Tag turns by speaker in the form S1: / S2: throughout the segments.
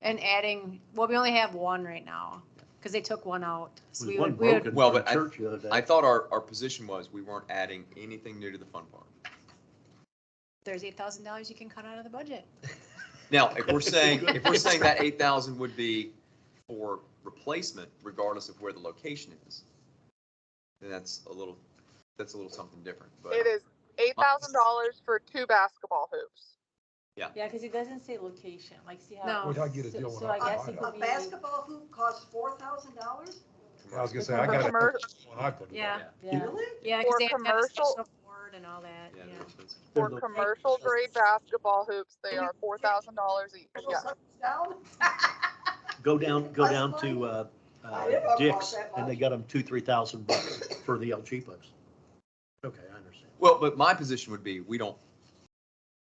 S1: And adding, well, we only have one right now, because they took one out. So
S2: There's
S1: we
S2: one
S1: would, we would,
S2: broken
S3: Well,
S2: from
S3: but I-
S2: church the other day.
S3: I thought our, our position was we weren't adding anything new to the fun park.
S1: there's eight thousand dollars you can cut out of the budget.
S3: Now, if we're saying, if we're saying that eight thousand would be for replacement regardless of where the location is, then that's a little, that's a little something different, but.
S4: It is eight thousand dollars for two basketball hoops.
S5: Yeah, because it doesn't say location, like see how.
S1: No.
S6: Would I get a
S5: So-
S6: deal when
S5: So
S6: I
S5: I
S6: buy
S5: guess
S6: it?
S5: it
S7: A
S5: could be.
S7: basketball hoop costs four thousand dollars?
S6: I was gonna say, I
S4: For
S6: got a
S4: commer-
S6: when I put it
S1: Yeah,
S6: up.
S5: Yeah.
S7: Really?
S1: yeah, because
S4: For
S1: they have to have a
S4: commercial-
S1: special board and all that,
S3: Yeah,
S1: yeah.
S3: they're expensive.
S4: For
S2: They're the-
S4: commercial grade basketball hoops, they are four thousand dollars each,
S7: Put
S4: yeah.
S7: something Down?
S2: Go down, go down to uh,
S7: I
S2: uh,
S7: didn't know it cost
S2: Dick's
S7: that
S2: and they
S7: much.
S2: got them two, three thousand bucks for the El Cheapos. Okay, I understand.
S3: Well, but my position would be, we don't,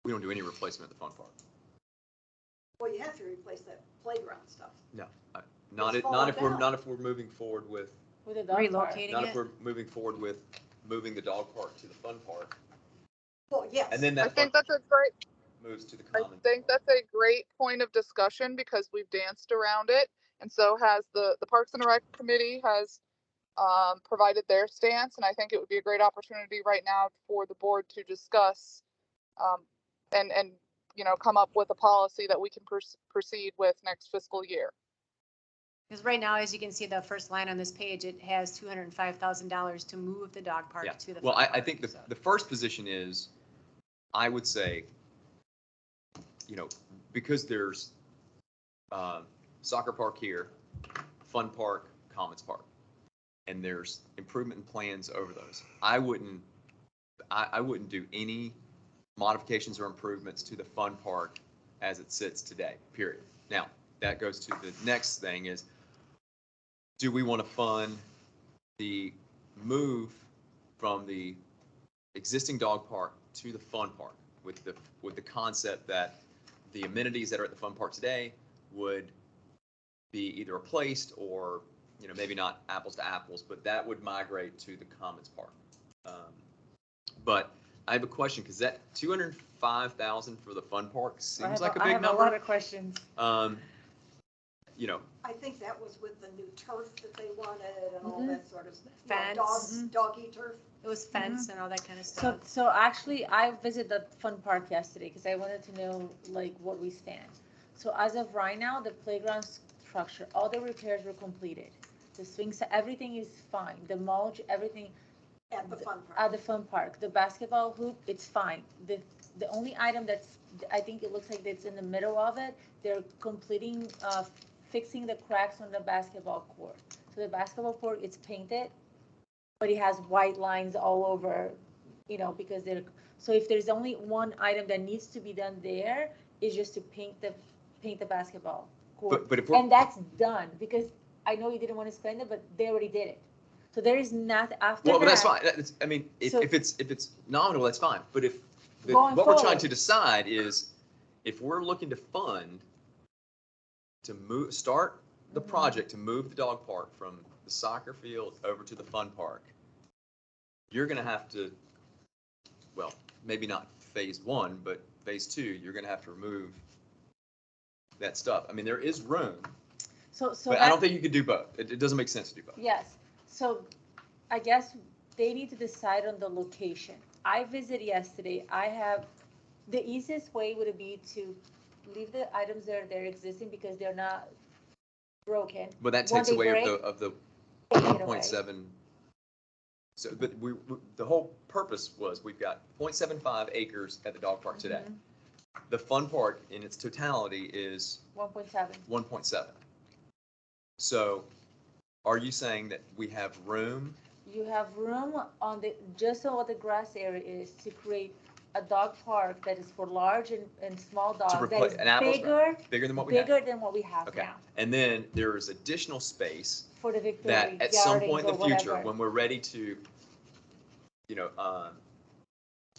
S3: we don't do any replacement at the fun park.
S7: Well, you have to replace that playground stuff.
S3: Not
S7: It's
S3: if, not if
S7: falling
S3: we're,
S7: down.
S3: not if we're moving forward with,
S5: With a dog park.
S1: Relocating
S3: not if
S1: it.
S3: we're moving forward with moving the dog park to the fun park.
S7: Well, yes.
S3: And then
S4: I
S3: that
S4: think
S3: park
S4: that's a great,
S3: moves to the
S4: I
S3: common.
S4: think that's a great point of discussion because we've danced around it. And so has the, the Parks and Rec Committee has um, provided their stance. And I think it would be a great opportunity right now for the board to discuss um, and, and, you know, come up with a policy that we can pers- proceed with next fiscal year.
S1: Because right now, as you can see, the first line on this page, it has two hundred and five thousand dollars to move the dog
S3: Yeah.
S1: park to the.
S3: Well,
S1: fun
S3: I, I
S1: park,
S3: think the,
S1: so.
S3: the first position is, I would say, you know, because there's uh, soccer park here, fun park, commons park, and there's improvement plans over those. I wouldn't, I, I wouldn't do any modifications or improvements to the fun park as it sits today, period. Now, that goes to the next thing is, do we want to fund the move from the existing dog park to the fun park with the, with the concept that the amenities that are at the fun park today would be either replaced or, you know, maybe not apples to apples, but that would migrate to the commons park. Um, But I have a question, because that two hundred and five thousand for the fun park
S5: I
S3: seems
S5: have,
S3: like a
S5: I
S3: big
S5: have a lot
S3: number.
S5: of questions.
S3: Um, You know,
S7: I think that was with the new turf that they wanted and all
S5: Mhm.
S7: that sort of stuff. You know,
S1: Fence.
S7: Dogs,
S5: Mm-hmm.
S7: doggy turf.
S1: It was fence and all that kind of
S5: So,
S1: stuff.
S5: so actually, I visited the fun park yesterday because I wanted to know like what we stand. So as of right now, the playground structure, all the repairs were completed. The swings, everything is fine. The mulch, everything
S7: At the fun
S5: at
S7: park.
S5: the fun park. The basketball hoop, it's fine. The, the only item that's, I think it looks like it's in the middle of it, they're completing, uh, fixing the cracks on the basketball court. So the basketball court, it's painted, but it has white lines all over, you know, because they're, so if there's only one item that needs to be done there, is just to paint the, paint the basketball court.
S3: but, but if we're.
S5: And that's done, because I know you didn't want to spend it, but they already did it. So there is not, after
S3: Well, but that's fine.
S5: that-
S3: That's, I mean, if,
S5: So-
S3: if it's, if it's nominal, that's fine. But if, the-
S5: Going
S3: what we're trying
S5: forward.
S3: to decide is if we're looking to fund to move, start the
S5: Mhm.
S3: project to move the dog park from the soccer field over to the fun park, you're going to have to, well, maybe not phase one, but phase two, you're going to have to remove that stuff. I mean, there is room,
S5: So, so
S3: but I don't
S5: that-
S3: think you could do both. It, it doesn't make sense to do both.
S5: yes. So I guess they need to decide on the location. I visited yesterday. I have, the easiest way would be to leave the items that are there existing because they're not broken.
S3: But that
S5: One
S3: takes
S5: day
S3: away of
S5: break,
S3: the, of the
S5: take it away.
S3: 0.7. So, but we, we- the whole purpose was, we've got 0.75 acres at the dog park today.
S5: Mhm.
S3: The fun park in its totality is
S5: One point seven.
S3: one point seven. So are you saying that we have room?
S5: You have room on the, just so what the grass area is to create a dog park that is for large and, and small dogs, that
S3: replace-
S5: is
S3: an apples
S5: bigger,
S3: Bigger than what we have?
S5: bigger than what we have
S3: Okay.
S5: now
S3: And then there is additional space
S5: for the Victory
S3: that at some
S5: Gardens
S3: point in
S5: or
S3: the future,
S5: whatever.
S3: when we're ready to, you know, um,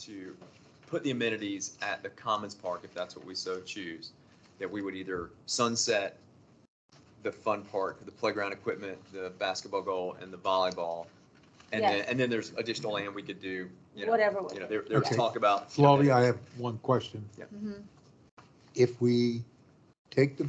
S3: to put the amenities at the Commons Park, if that's what we so choose, that we would either sunset the fun park, the playground equipment, the basketball goal and the volleyball. And then,
S5: Yes.
S3: and then there's additional land we could do, you know,
S5: Whatever with
S3: you know,
S5: it.
S3: there, there was
S6: Okay.
S3: talk about.
S6: Flavia, I have one question.
S5: Mhm.
S6: If we take the